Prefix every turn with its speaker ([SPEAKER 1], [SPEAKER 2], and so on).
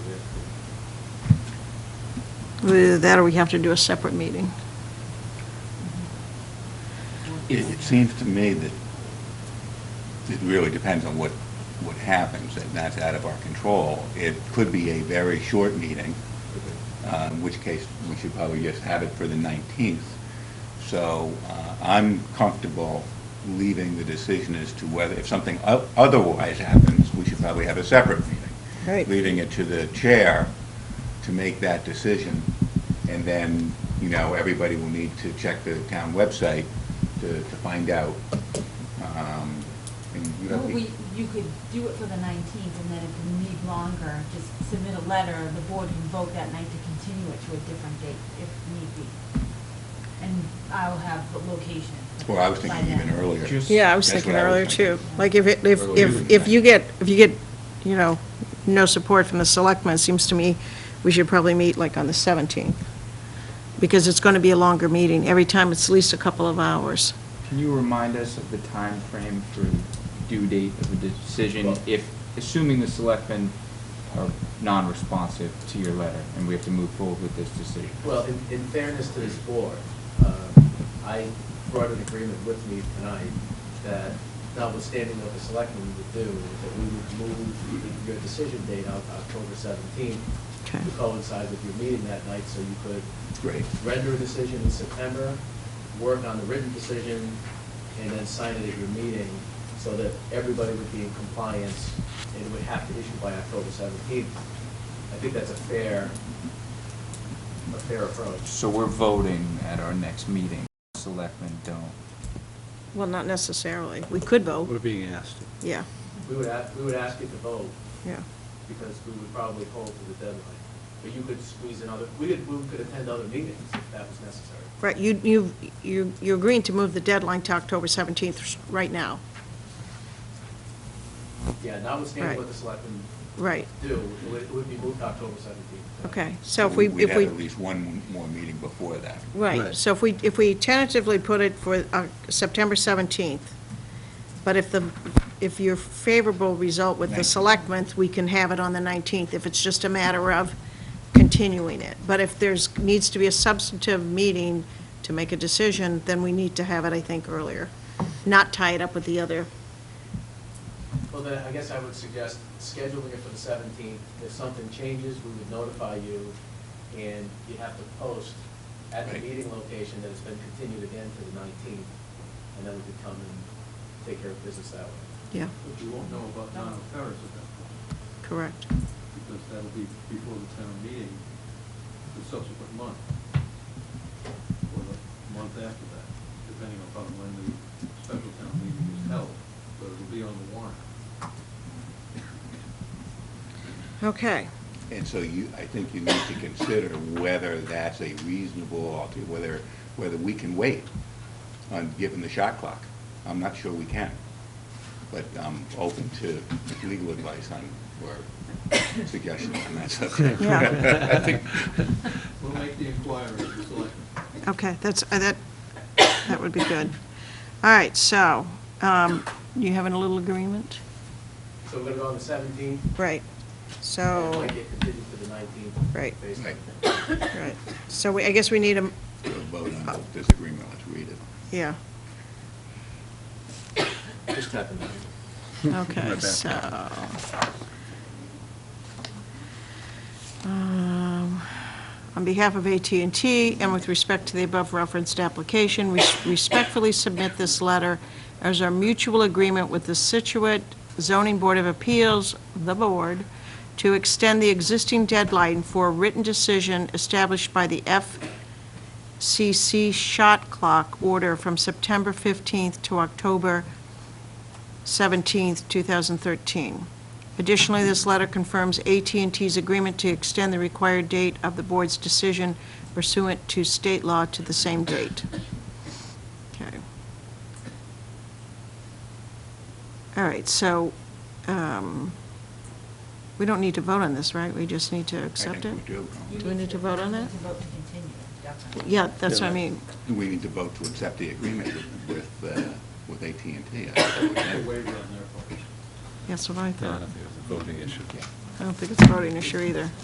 [SPEAKER 1] Either That or we have to do a separate meeting.
[SPEAKER 2] It it seems to me that it really depends on what, what happens, and that's out of our control. It could be a very short meeting, uh, in which case we should probably just have it for the 19th. So uh, I'm comfortable leaving the decision as to whether, if something o- otherwise happens, we should probably have a separate meeting.
[SPEAKER 3] Right.
[SPEAKER 2] Leaving it to the chair to make that decision, and then, you know, everybody will need to check the town website to, to find out. Um, and you
[SPEAKER 4] Well,
[SPEAKER 2] don't
[SPEAKER 4] we,
[SPEAKER 2] think-
[SPEAKER 4] you could do it for the nineteenth, and then if you need longer, just submit a letter, the board can vote that night to continue it to a different date if need be. And I'll have the location.
[SPEAKER 2] Well, I was
[SPEAKER 4] by
[SPEAKER 2] thinking even
[SPEAKER 4] then.
[SPEAKER 2] earlier.
[SPEAKER 5] Just-
[SPEAKER 3] Yeah, I was
[SPEAKER 2] That's
[SPEAKER 3] thinking
[SPEAKER 2] what I was
[SPEAKER 3] earlier too.
[SPEAKER 2] thinking.
[SPEAKER 3] Like if, it- if,
[SPEAKER 5] Or
[SPEAKER 3] if,
[SPEAKER 5] you-
[SPEAKER 3] if you get, if you get, you know, no support from the selectmen, it seems to me we should probably meet like on the 17th. Because it's going to be a longer meeting. Every time it's at least a couple of hours.
[SPEAKER 6] Can you remind us of the time frame for due date of the decision if, assuming the selectmen are non-responsive to your letter and we have to move forward with this decision?
[SPEAKER 7] Well, in, in fairness to this board, uh, I brought an agreement with me tonight that notwithstanding what the selectmen would do, that we would move your decision date out to October seventeenth
[SPEAKER 3] Okay.
[SPEAKER 7] to coincide with your meeting that night, so you could
[SPEAKER 2] Great.
[SPEAKER 7] render a decision in September, work on the written decision, and then sign it at your meeting, so that everybody would be in compliance and would have to issue by October seventeenth. I think that's a fair, a fair approach.
[SPEAKER 6] So we're voting at our next meeting, selectmen don't.
[SPEAKER 3] Well, not necessarily. We could
[SPEAKER 5] We're
[SPEAKER 3] vote.
[SPEAKER 5] being asked.
[SPEAKER 3] Yeah,
[SPEAKER 7] We would ask, we would ask you to vote,
[SPEAKER 3] yeah.
[SPEAKER 7] because we would probably hold to the deadline. But you could squeeze another, we could, we could attend other meetings if that was necessary.
[SPEAKER 3] Right, you, you, you you're agreeing to move the deadline to October 17th right now.
[SPEAKER 7] Yeah, notwithstanding what
[SPEAKER 3] Right.
[SPEAKER 7] the selectmen
[SPEAKER 3] Right,
[SPEAKER 7] do, it would- it would be moved to October seventeenth.
[SPEAKER 3] okay. So if we,
[SPEAKER 2] We'd
[SPEAKER 3] if
[SPEAKER 2] have
[SPEAKER 3] we.
[SPEAKER 2] at least one more meeting before that.
[SPEAKER 3] Right,
[SPEAKER 5] Right.
[SPEAKER 3] so if we, if we tentatively put it for uh, September 17th, but if the, if your favorable result with the
[SPEAKER 2] 19th.
[SPEAKER 3] selectmen, we can have it on the 19th, if it's just a matter of continuing it. But if there's, needs to be a substantive meeting to make a decision, then we need to have it, I think, earlier, not tie it up with the other.
[SPEAKER 7] Well, then, I guess I would suggest scheduling it for the seventeenth. If something changes, we would notify you, and you'd have to post at the
[SPEAKER 2] Right.
[SPEAKER 7] meeting location that it's been continued again to the nineteenth, and then we could come and take care of business that way.
[SPEAKER 3] Yeah,
[SPEAKER 8] But you won't know about non-affairs at that point,
[SPEAKER 3] correct.
[SPEAKER 8] because that'll be before the town meeting, the subsequent month, or the month after that, depending upon when the special town meeting is held, but it'll be on the warrant.
[SPEAKER 3] Okay,
[SPEAKER 2] And so you, I think you need to consider whether that's a reasonable, alter- whether, whether we can wait on, given the shot clock. I'm not sure we can, but I'm open to legal advice on, or suggestions on that subject.
[SPEAKER 3] Yeah.
[SPEAKER 5] I think-
[SPEAKER 8] We'll make the inquiry, the selectmen.
[SPEAKER 3] okay, that's, uh, that, that would be good. All right, so, um, you having a little agreement?
[SPEAKER 7] So we're gonna go on the seventeenth,
[SPEAKER 3] Right,
[SPEAKER 7] and it
[SPEAKER 3] so,
[SPEAKER 7] might get continued to the nineteenth.
[SPEAKER 3] Right.
[SPEAKER 7] Based on
[SPEAKER 2] Right.
[SPEAKER 3] right, so we, I guess we need a,
[SPEAKER 2] We'll vote on this agreement, let's read it.
[SPEAKER 3] yeah,
[SPEAKER 7] Just happened.
[SPEAKER 3] okay, so. Um, On behalf of at and T, and with respect to the above referenced application, we respectfully submit this letter as our mutual agreement with the Situate Zoning Board of Appeals, the board, to extend the existing deadline for a written decision established by the F. CC shot clock order from September 15th to October 17th, 2013. Additionally, this letter confirms at and ts agreement to extend the required date of the board's decision pursuant to state law to the same date. Okay. All right, so um, we don't need to vote on this, right? We just need to accept it?
[SPEAKER 2] I think we do.
[SPEAKER 4] You
[SPEAKER 3] Do we need to vote on that?
[SPEAKER 4] You need to vote to continue it, definitely.
[SPEAKER 3] Yeah, that's what I mean.
[SPEAKER 2] We need to vote to accept the agreement with, uh, with at and T.
[SPEAKER 8] It's a waiver on their part.
[SPEAKER 3] That's what I
[SPEAKER 5] No, I
[SPEAKER 2] Uh,
[SPEAKER 3] thought.
[SPEAKER 5] don't think it was a voting issue.
[SPEAKER 3] I don't think it's a voting issue either.